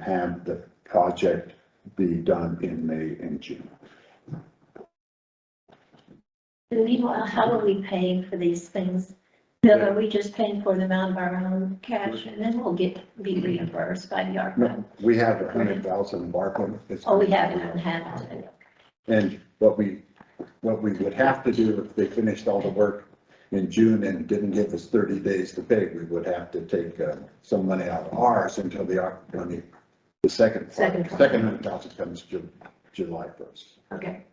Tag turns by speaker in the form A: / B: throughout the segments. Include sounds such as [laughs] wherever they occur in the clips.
A: have the project be done in May and June.
B: And meanwhile, how are we paying for these things? Bill, are we just paying for them out of our own cash and then we'll get, be reimbursed by the ARPA?
A: No, we have a hundred thousand in Barclay. It's-
B: Oh, we haven't had it.
A: And what we, what we would have to do if they finished all the work in June and didn't give us thirty days to pay, we would have to take uh, some money out of ours until the, ARPA money, the second,
B: Second.
A: second hundred thousand comes Ju- July first.
B: Okay.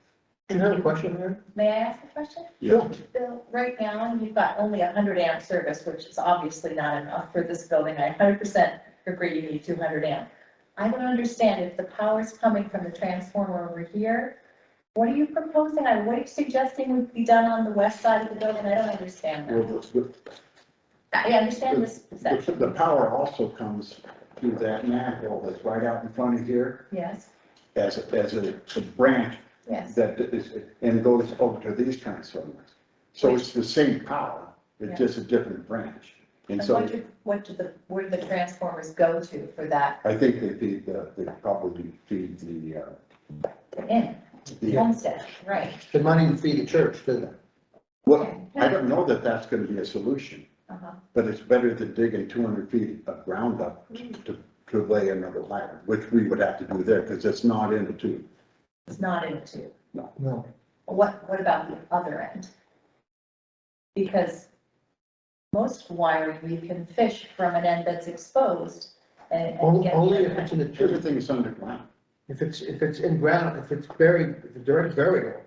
C: You have a question there?
D: May I ask a question?
A: Yeah.
D: Bill, right now, you've got only a hundred amp service, which is obviously not enough for this building. I hundred percent agree you need two hundred amp. I don't understand if the power's coming from the transformer over here. What are you proposing? I- What are you suggesting would be done on the west side of the building? I don't understand that.
A: Well, the-
D: I understand this
A: the,
D: section,
A: the power also comes through that manhole that's right out in front of here
D: yes,
A: as, a- as a a branch
D: yes.
A: that is, and goes over to these transformers. So it's the same power, it's just a different branch. And
D: And
A: so
D: what do, what do the, where do the transformers go to for that
A: I think they feed the, they probably feed the, uh,
D: in,
A: the,
D: homestead, right?
C: They might even feed the church, do they?
A: well, I don't know that that's gonna be a solution,
D: Uh-huh.
A: but it's better than digging two hundred feet of ground up to, to lay another ladder, which we would have to do there, because it's not in the tube.
D: It's not in two.
C: No.
D: What, what about the other end? Because most wiring, you can fish from an end that's exposed and. and
C: Only,
D: get the
C: only
D: other
C: if it's
D: end.
C: in the church,
A: Everything is underground.
C: if it's, if it's in ground, if it's buried, if it's direct burial,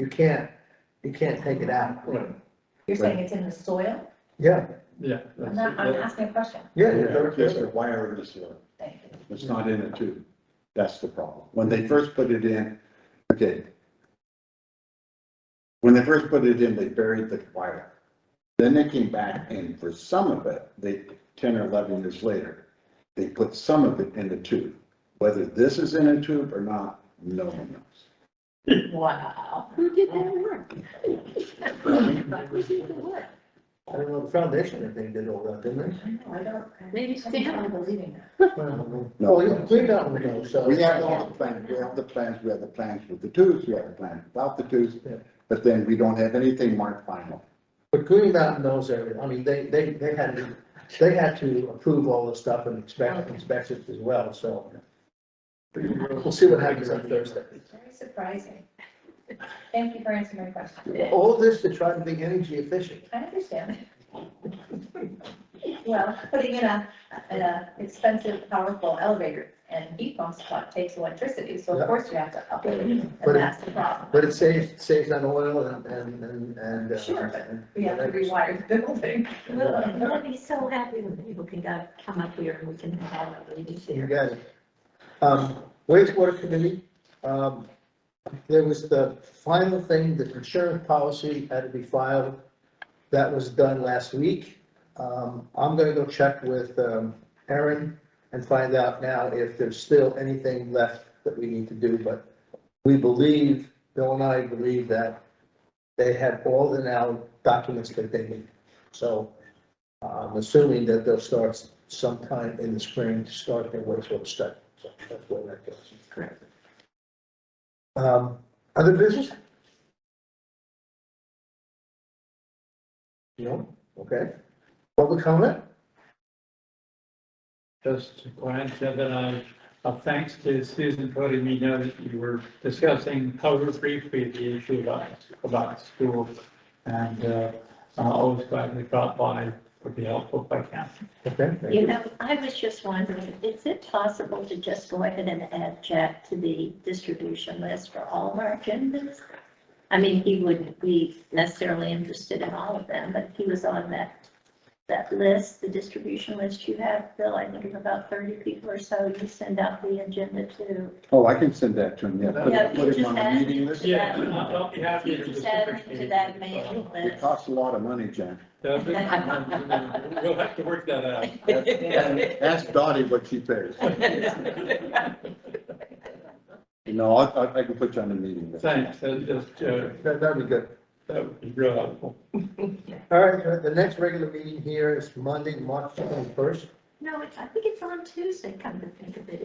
C: you can't, you can't take it out.
D: You're saying it's in the soil?
C: Yeah,
E: Yeah.
D: I'm
E: that's-
D: not, I'm
E: that-
D: asking a question.
C: yeah, it's direct
A: Just the
C: burial.
A: wire is there.
D: Thank you.
A: It's not in it too. That's the problem. When they first put it in, okay. When they first put it in, they buried the wire. Then they came back and for some of it, they, ten or eleven years later, they put some of it in the tube. Whether this is in a tube or not, no one knows.
D: Wow.
B: Who did that work? Who did the work?
C: I don't know, the foundation, I think, did all that, didn't
D: I know, I don't,
B: Maybe
D: I'm
B: Stan.
D: not believing that.
C: they? Well, you cleared out the hill, so.
A: We have all the plans, we have the plans, we have the plans with the tubes, we have the plans without the tubes.
C: Yeah.
A: But then we don't have anything marked final.
C: But Green Mountain knows everything, I mean, they, they, they had to, they had to approve all this stuff and inspect, inspect it as well, so. We'll see what happens on Thursday.
D: Very surprising. Thank you for answering my question.
C: All this to try to be energy efficient.
D: I understand. Well, putting in a, an uh, expensive, powerful elevator and heat pump spot takes electricity, so of course you have to up it, and
C: But it-
D: that's the problem.
C: But it saves, saves on oil and, and, and, and. uh,
D: Sure, but
C: and-
D: We have to rewire the building.
B: We'll be so happy when people can go- come up here and we can have a meeting
C: You
B: here.
C: got it. Um, wastewater committee, um, there was the final thing, the insurance policy had to be filed. That was done last week. Um, I'm gonna go check with, um, Aaron and find out now if there's still anything left that we need to do, but we believe, Bill and I believe that they have all the now documents that they need. So I'm assuming that they'll start sometime in the spring to start their wastewater study. So that's where that goes.
B: Correct.
C: Um, other business? No, okay. Public comment?
E: Just glad to that I, uh, thanks to Susan for letting me know that you were discussing over briefly the issue about, about school. And, uh, I always glad we dropped by, would be helpful if I can.
C: Okay. thank
B: You know, I was just wondering, is it possible to just go ahead and add Jack to the distribution list for all of our agendas? I mean, he wouldn't be necessarily interested in all of them, but he was on that, that list, the distribution list you have, Bill, I think it's about thirty people or so, you send out the agenda to.
A: Oh, I can send that to him, yeah. Put
B: Yeah,
A: it-
B: you
A: put him
B: just
A: on the
B: add-
A: meeting list.
E: Yeah, I'll I'll be happy
B: You
E: to.
B: just add him to that mailing
A: It
B: list.
A: costs a lot of money, Jen.
E: Uh, but- We'll have to work that
B: [laughs]
E: out.
A: Ask Dottie what she pays. No, I, I- I can put you on the meeting list.
E: Thanks, that's just, uh,
C: you. That, that'd be good.
E: that would be real helpful.
C: All right, uh, the next regular meeting here is Monday, March twenty-first.
B: No, it's, I think it's on Tuesday, come to think of it.